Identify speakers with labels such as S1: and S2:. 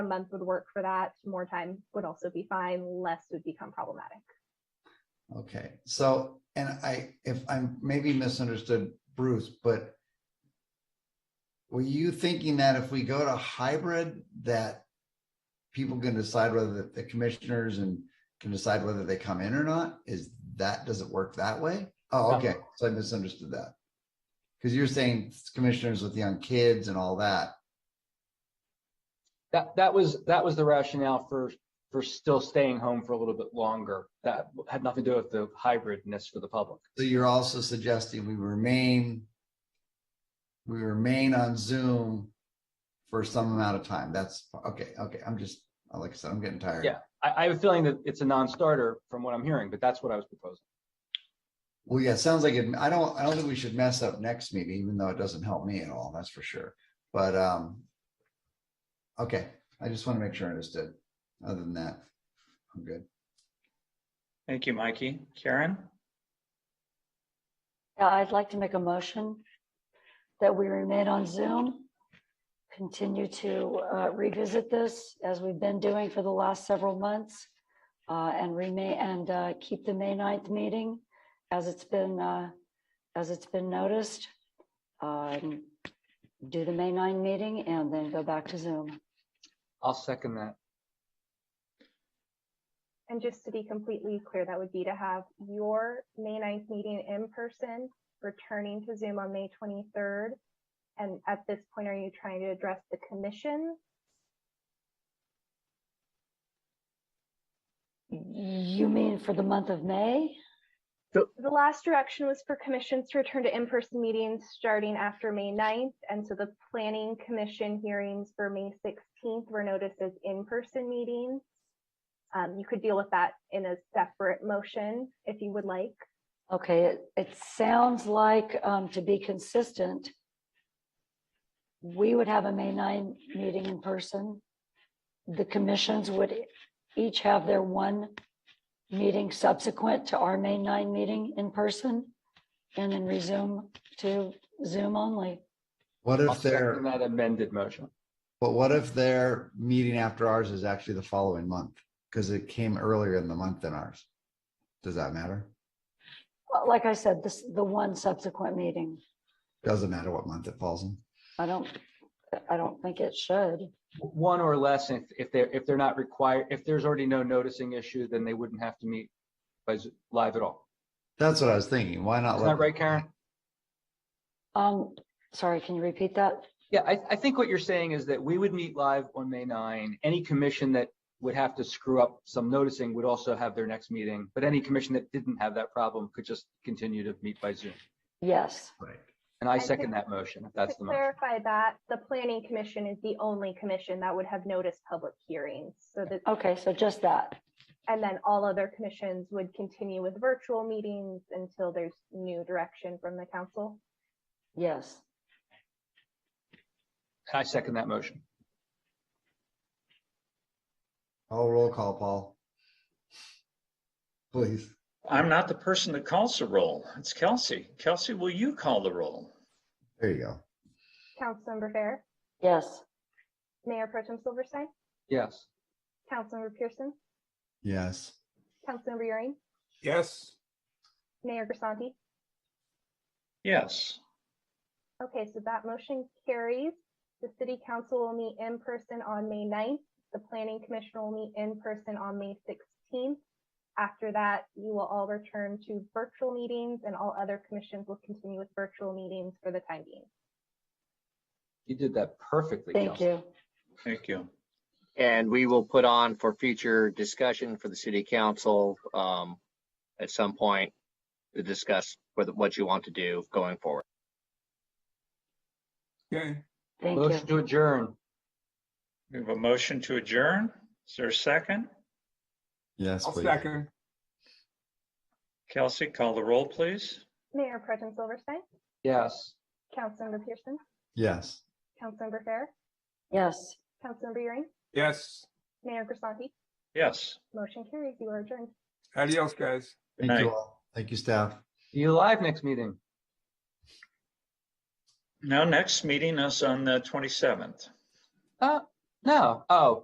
S1: a month would work for that. More time would also be fine. Less would become problematic.
S2: Okay, so, and I, if I'm maybe misunderstood Bruce, but were you thinking that if we go to hybrid, that people can decide whether the- the commissioners and can decide whether they come in or not? Is that, does it work that way? Oh,
S3: No.
S2: okay, so I misunderstood that. Because you're saying commissioners with young kids and all that.
S3: That, that was, that was the rationale for, for still staying home for a little bit longer. That had nothing to do with the hybridness for the public.
S2: So you're also suggesting we remain, we remain on Zoom for some amount of time. That's, okay, okay, I'm just, like I said, I'm getting tired.
S3: Yeah. I, I have a feeling that it's a non-starter from what I'm hearing, but that's what I was proposing.
S2: Well, yeah, it sounds like it, I don't, I don't think we should mess up next meeting, even though it doesn't help me at all, that's for sure, but, um, okay, I just want to make sure I understood. Other than that, I'm good.
S4: Thank you, Mikey. Karen,
S5: Yeah, Uh, I'd like to make a motion that we remain on Zoom. Continue to uh, revisit this as we've been doing for the last several months. uh, And remain, and uh, keep the May 9th meeting as it's been, uh, as it's been noticed. Um, Do the May 9 meeting and then go back to Zoom.
S3: I'll second that.
S1: And just to be completely clear, that would be to have your May 9th meeting in person, returning to Zoom on May 23rd. And at this point, are you trying to address the commission?
S5: You mean for the month of May?
S1: The last direction was for commissions to return to in-person meetings starting after May 9th. And so the planning commission hearings for May 16th were noticed as in-person meetings. Um, you could deal with that in a separate motion if you would like.
S5: Okay, it, it sounds like, um, to be consistent, we would have a May nine meeting in person. The commissions would each have their one meeting subsequent to our May nine meeting in person and then resume to Zoom only.
S2: What
S3: I'll
S2: if
S3: second
S2: their,
S3: that amended motion.
S2: but what if their meeting after ours is actually the following month? Because it came earlier in the month than ours. Does that matter?
S5: Well, Like I said, this, the one subsequent meeting,
S2: Doesn't matter what month it falls in.
S5: I don't, I don't think it should.
S3: One or less, if, if they're, if they're not required, if there's already no noticing issue, then they wouldn't have to meet by Zo- live at all.
S2: That's what I was thinking. Why not?
S3: Isn't
S2: let
S3: that right,
S2: them-
S3: Karen?
S5: Um, sorry, can you repeat that?
S3: Yeah, I, I think what you're saying is that we would meet live on May 9. Any commission that would have to screw up some noticing would also have their next meeting, but any commission that didn't have that problem could just continue to meet by Zoom.
S5: Yes.
S2: Right.
S3: And I
S1: to-
S3: second that motion, if
S1: To
S3: that's the motion.
S1: clarify that, the planning commission is the only commission that would have noticed public hearings. So that,
S5: Okay, so just that.
S1: and then all other commissions would continue with virtual meetings until there's new direction from the council.
S5: Yes.
S3: I second that motion.
S2: Oh, roll call, Paul. Please.
S4: I'm not the person that calls the roll. It's Kelsey. Kelsey, will you call the roll?
S2: There you go.
S1: Councilmember Fair,
S5: Yes.
S1: Mayor Pro Tem Silverstein,
S3: Yes.
S1: Councilmember Pearson,
S2: Yes.
S1: Councilmember Euring,
S6: Yes.
S1: Mayor Grisanti.
S4: Yes.
S1: Okay, so that motion carries. The city council will meet in person on May 9th. The planning commission will meet in person on May sixteenth. After that, you will all return to virtual meetings and all other commissions will continue with virtual meetings for the time being.
S3: You did that perfectly,
S5: Thank
S3: Kelsey.
S5: you.
S4: Thank you.
S7: And we will put on for future discussion for the city council um, at some point to discuss whether- what you want to do going forward.
S6: Okay.
S5: Thank you.
S3: Motion to adjourn.
S4: We have a motion to adjourn. Is there a second?
S2: Yes,
S6: I'll
S2: please.
S6: second.
S4: Kelsey, call the roll, please.
S1: Mayor Pro Tem Silverstein,
S3: Yes.
S1: Councilmember Pearson,
S2: Yes.
S1: Councilmember Fair,
S5: Yes.
S1: Councilmember Euring,
S6: Yes.
S1: Mayor Grisanti.
S4: Yes.
S1: Motion carries. You are adjourned.
S6: Adios, guys.
S2: Thank you
S4: night.
S2: all. Thank you, staff.
S3: Are You live next meeting.
S4: Now, next meeting is on the 27th.
S3: Uh, no. Oh,